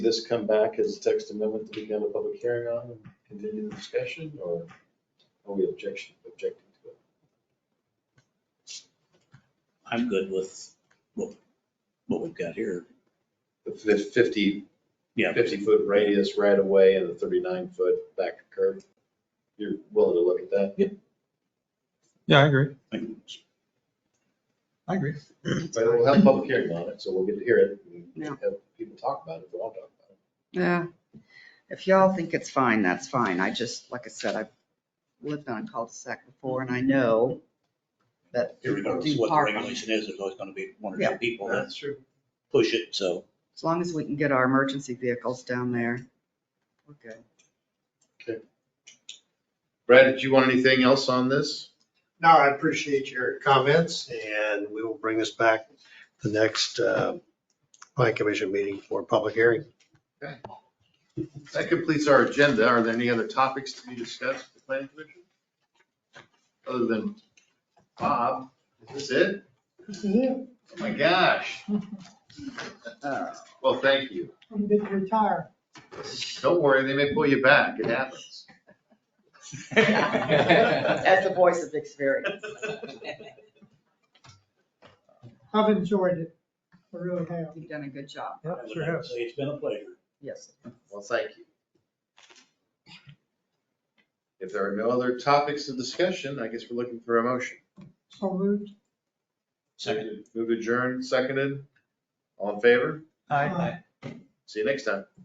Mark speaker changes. Speaker 1: this come back as a text amendment to begin a public hearing on and continue the discussion, or are we objection, objecting to it?
Speaker 2: I'm good with what, what we've got here.
Speaker 1: The fif- fifty,
Speaker 2: Yeah.
Speaker 1: fifty-foot radius right away and a thirty-nine-foot back to curb? You're willing to look at that?
Speaker 3: Yeah, I agree.
Speaker 2: I mean, it's-
Speaker 3: I agree.
Speaker 1: But we'll have a public hearing on it, so we'll get to hear it, and
Speaker 4: Yeah.
Speaker 1: have people talk about it, we'll all talk about it.
Speaker 4: Yeah, if y'all think it's fine, that's fine. I just, like I said, I've lived on a cul-de-sac before and I know that people
Speaker 2: Regardless of
Speaker 4: do
Speaker 2: what the
Speaker 4: park on.
Speaker 2: regulation is, there's always gonna be one or
Speaker 4: Yeah.
Speaker 2: two people that
Speaker 1: true.
Speaker 2: push it, so.
Speaker 4: As long as we can get our emergency vehicles down there, we're good.
Speaker 1: Brad, did you want anything else on this?
Speaker 5: No, I appreciate your comments and we will bring this back the next uh, planning commission meeting for public hearing.
Speaker 1: That completes our agenda. Are there any other topics to be discussed with the planning commission? Other than Bob, is this it? Oh my gosh.
Speaker 4: Uh,
Speaker 1: Well, thank you.
Speaker 6: I'm good to retire.
Speaker 1: Don't worry, they may pull you back. It happens.
Speaker 4: As the voice of experience.
Speaker 6: I've enjoyed it. I really have.
Speaker 4: You've done a good job.
Speaker 3: Yeah,
Speaker 2: I would
Speaker 3: sure
Speaker 2: like to
Speaker 3: has.
Speaker 2: Say it's been a pleasure.
Speaker 4: Yes.
Speaker 1: Well, thank you. If there are no other topics of discussion, I guess we're looking for a motion.
Speaker 6: So moved.
Speaker 2: Second.
Speaker 1: Move adjourned, seconded. All in favor?
Speaker 6: Aye.
Speaker 1: See you next time.